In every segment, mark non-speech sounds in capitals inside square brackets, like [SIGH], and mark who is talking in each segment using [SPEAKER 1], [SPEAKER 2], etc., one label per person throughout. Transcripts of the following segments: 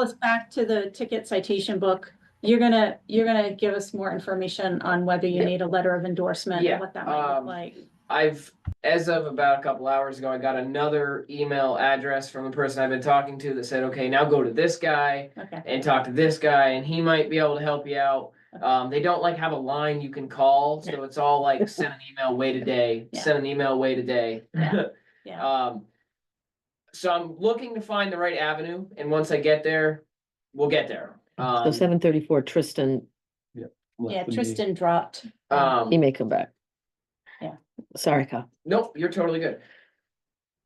[SPEAKER 1] us back to the ticket citation book. You're gonna, you're gonna give us more information on whether you
[SPEAKER 2] Yeah.
[SPEAKER 1] need a letter of endorsement
[SPEAKER 2] Yeah,
[SPEAKER 1] and what that might look
[SPEAKER 2] um,
[SPEAKER 1] like.
[SPEAKER 2] I've, as of about a couple hours ago, I got another email address from the person I've been talking to that said, okay, now go to this guy
[SPEAKER 1] Okay,
[SPEAKER 2] and talk to this guy and he might be able to help you out. Um, they don't like have a line you can call, so it's all like send an email, wait a day,
[SPEAKER 1] Yeah.
[SPEAKER 2] send an email, wait a day.
[SPEAKER 1] Yeah.
[SPEAKER 2] [LAUGHS]
[SPEAKER 1] yeah,
[SPEAKER 2] Um, so I'm looking to find the right avenue and once I get there, we'll get there.
[SPEAKER 3] So
[SPEAKER 2] Um,
[SPEAKER 3] seven thirty-four, Tristan,
[SPEAKER 1] yeah, Tristan dropped.
[SPEAKER 2] um,
[SPEAKER 3] he may come back.
[SPEAKER 1] Yeah.
[SPEAKER 3] Sorry, Kyle.
[SPEAKER 2] Nope, you're totally good.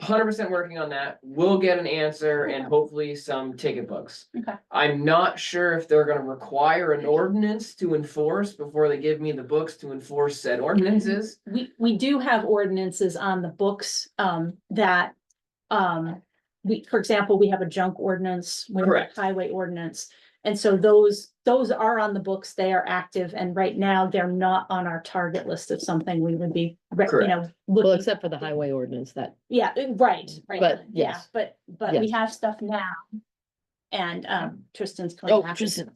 [SPEAKER 2] Hundred percent working on that. We'll get an answer and hopefully some ticket books.
[SPEAKER 1] Okay.
[SPEAKER 2] I'm not sure if they're gonna require an ordinance to enforce before they give me the books to enforce said ordinances.
[SPEAKER 1] We, we do have ordinances on the books, um, that, um, we, for example, we have a junk ordinance. we have a
[SPEAKER 2] Correct.
[SPEAKER 1] Highway ordinance. And so those, those are on the books. They are active and right now they're not on our target list of something we would be, re- you know,
[SPEAKER 3] Well,
[SPEAKER 1] looking
[SPEAKER 3] except for the highway ordinance that,
[SPEAKER 1] Yeah, uh, right, right.
[SPEAKER 3] But,
[SPEAKER 1] yeah,
[SPEAKER 3] yes.
[SPEAKER 1] But, but we have stuff now. And um Tristan's coming
[SPEAKER 3] oh,
[SPEAKER 1] back.
[SPEAKER 3] Tristan,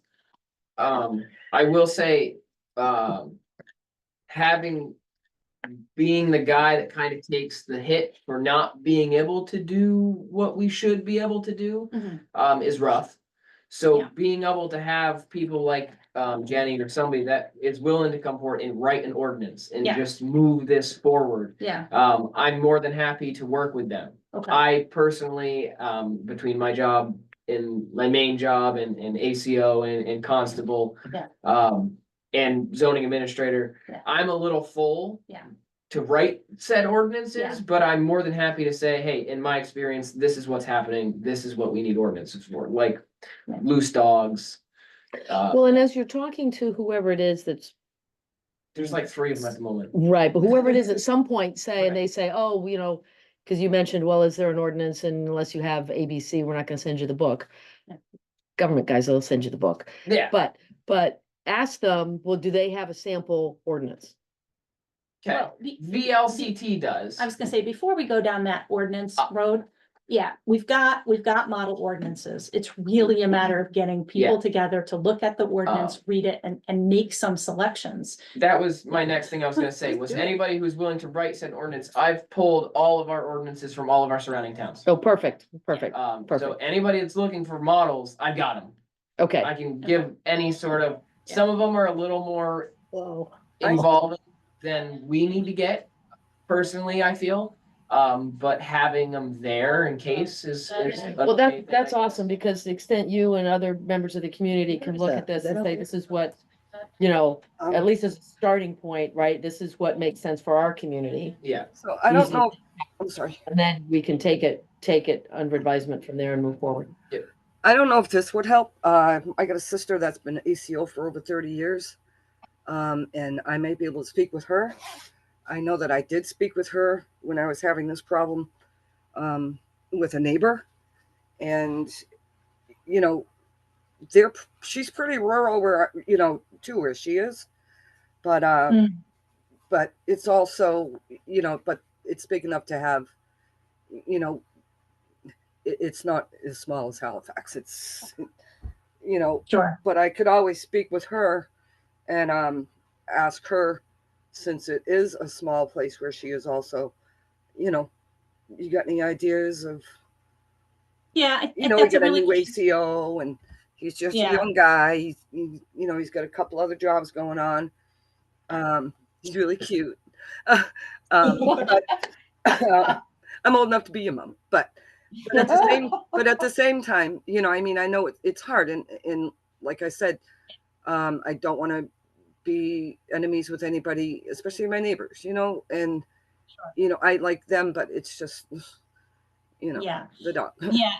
[SPEAKER 2] Um, I will say, um, having, being the guy that kind of takes the hit for not being able to do what we should be able to do.
[SPEAKER 1] Mhm,
[SPEAKER 2] um, is rough. So
[SPEAKER 1] Yeah.
[SPEAKER 2] being able to have people like, um, Jenny or somebody that is willing to come forward and write an ordinance and
[SPEAKER 1] Yeah.
[SPEAKER 2] just move this forward.
[SPEAKER 1] Yeah,
[SPEAKER 2] Um, I'm more than happy to work with them.
[SPEAKER 1] okay,
[SPEAKER 2] I personally, um, between my job and my main job and, and ACO and, and constable.
[SPEAKER 1] Yeah.
[SPEAKER 2] Um, and zoning administrator,
[SPEAKER 1] Yeah.
[SPEAKER 2] I'm a little full.
[SPEAKER 1] Yeah.
[SPEAKER 2] To write said
[SPEAKER 1] Yeah.
[SPEAKER 2] ordinances, but I'm more than happy to say, hey, in my experience, this is what's happening, this is what we need ordinances for, like
[SPEAKER 1] Yeah.
[SPEAKER 2] loose dogs. Uh,
[SPEAKER 3] well, and as you're talking to whoever it is that's,
[SPEAKER 2] there's like three of them at the moment.
[SPEAKER 3] right, but whoever it is at some point say, and
[SPEAKER 2] Right.
[SPEAKER 3] they say, oh, you know, because you mentioned, well, is there an ordinance and unless you have ABC, we're not gonna send you the book.
[SPEAKER 1] Yeah.
[SPEAKER 3] Government guys, they'll send you the book,
[SPEAKER 2] Yeah,
[SPEAKER 3] but, but ask them, well, do they have a sample ordinance?
[SPEAKER 2] okay,
[SPEAKER 1] well, be-
[SPEAKER 2] VLCT does.
[SPEAKER 1] I was gonna say, before we go down that ordinance
[SPEAKER 4] Ah.
[SPEAKER 2] Uh.
[SPEAKER 1] road, yeah, we've got, we've got model ordinances. It's really a matter of getting people together to look at the
[SPEAKER 4] Oh.
[SPEAKER 1] ordinance, read it and and make some selections.
[SPEAKER 2] That was my next thing I
[SPEAKER 3] [LAUGHS]
[SPEAKER 2] was gonna say, was anybody who's willing to write said ordinance, I've pulled all of our ordinances from all of our surrounding towns.
[SPEAKER 3] Oh, perfect, perfect,
[SPEAKER 2] Um, so
[SPEAKER 3] perfect.
[SPEAKER 2] anybody that's looking for models, I've got them.
[SPEAKER 3] okay.
[SPEAKER 2] I can give any sort of, some of them are a little more
[SPEAKER 3] Whoa.
[SPEAKER 2] involving than we need to get, personally, I feel. Um, but having them there in case is. is a
[SPEAKER 3] Well, that,
[SPEAKER 2] big thing.
[SPEAKER 3] that's awesome, because to the extent you and other members of the community can
[SPEAKER 4] Where's
[SPEAKER 3] look
[SPEAKER 4] that?
[SPEAKER 3] at this
[SPEAKER 4] Is
[SPEAKER 3] and
[SPEAKER 4] that
[SPEAKER 3] say,
[SPEAKER 4] over
[SPEAKER 3] this is what, you know, at least as a starting point, right? This is what makes sense for our community.
[SPEAKER 2] Yeah,
[SPEAKER 4] So I don't
[SPEAKER 3] easy.
[SPEAKER 4] know, I'm sorry,
[SPEAKER 3] And then we can take it, take it under advisement from there and
[SPEAKER 1] [LAUGHS]
[SPEAKER 3] move forward.
[SPEAKER 4] I don't know if this would help. Uh, I got a sister that's been ACO for over thirty years. Um, and I may be able to speak with her. I know that I did speak with her when I was having this problem, um, with a neighbor. And, you know, they're, she's pretty rural where, you know, to where she is. But, uh,
[SPEAKER 3] Hmm.
[SPEAKER 1] Mm.
[SPEAKER 4] but it's also, you know, but it's big enough to have, you know, it, it's not as small as Halifax. It's, you know,
[SPEAKER 1] Sure.
[SPEAKER 4] but I could always speak with her and um, ask her, since it is a small place where she is also, you know, you got any ideas of,
[SPEAKER 1] Yeah. I
[SPEAKER 4] you
[SPEAKER 1] think
[SPEAKER 4] know, we
[SPEAKER 1] that's a
[SPEAKER 4] got a
[SPEAKER 1] really
[SPEAKER 4] new ACO and he's just
[SPEAKER 1] Yeah.
[SPEAKER 4] a young guy. He's, he, you know, he's got a couple other jobs going on. Um, he's really cute. [LAUGHS] um, but- [LAUGHS] I'm old enough to be your mom, but but at the same but at the same time, you know, I mean, I know it, it's hard, and and like I said, um, I don't want to be enemies with anybody, especially my neighbors, you know, and you know, I like them, but it's just, you know,
[SPEAKER 1] Yeah,
[SPEAKER 4] the dog. [LAUGHS]
[SPEAKER 1] yeah.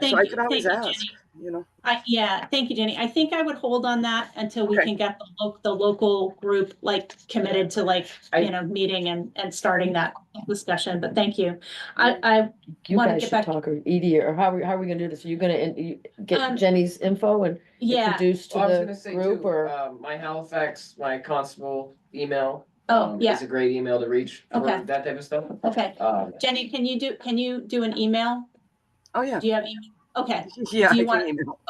[SPEAKER 1] Thank
[SPEAKER 4] so I
[SPEAKER 1] you-
[SPEAKER 4] could always
[SPEAKER 1] thank you,
[SPEAKER 4] ask,
[SPEAKER 1] Jenny.
[SPEAKER 4] you know.
[SPEAKER 1] I, yeah, thank you, Jenny. I think I would hold on that until we
[SPEAKER 4] Okay.
[SPEAKER 1] can get the local, the local group like committed to like,
[SPEAKER 2] I-
[SPEAKER 1] you know, meeting and, and starting that discussion, but thank you. I,
[SPEAKER 3] You
[SPEAKER 1] Wanna
[SPEAKER 3] guys
[SPEAKER 1] get
[SPEAKER 3] should
[SPEAKER 1] back-
[SPEAKER 3] talk, or Edie, or how, are we- how are we gonna do this? Are you gonna, in- you
[SPEAKER 1] Um,
[SPEAKER 3] get Jenny's info and
[SPEAKER 1] I, yeah,
[SPEAKER 3] introduce to
[SPEAKER 2] Well, I was gonna
[SPEAKER 3] the
[SPEAKER 2] say
[SPEAKER 3] group,
[SPEAKER 2] too,
[SPEAKER 3] or?
[SPEAKER 2] um, my Halifax, my constable email.
[SPEAKER 1] oh,
[SPEAKER 2] um,
[SPEAKER 1] yeah,
[SPEAKER 2] Is a great email to reach for
[SPEAKER 1] Okay.
[SPEAKER 2] that type of stuff.
[SPEAKER 1] okay.
[SPEAKER 2] Um,
[SPEAKER 1] Jenny, can you do, can you do an email?
[SPEAKER 4] Oh yeah,
[SPEAKER 1] Do you have, email? Okay.
[SPEAKER 4] [LAUGHS] Yeah.
[SPEAKER 1] Do you
[SPEAKER 4] I can
[SPEAKER 1] wanna-
[SPEAKER 4] email.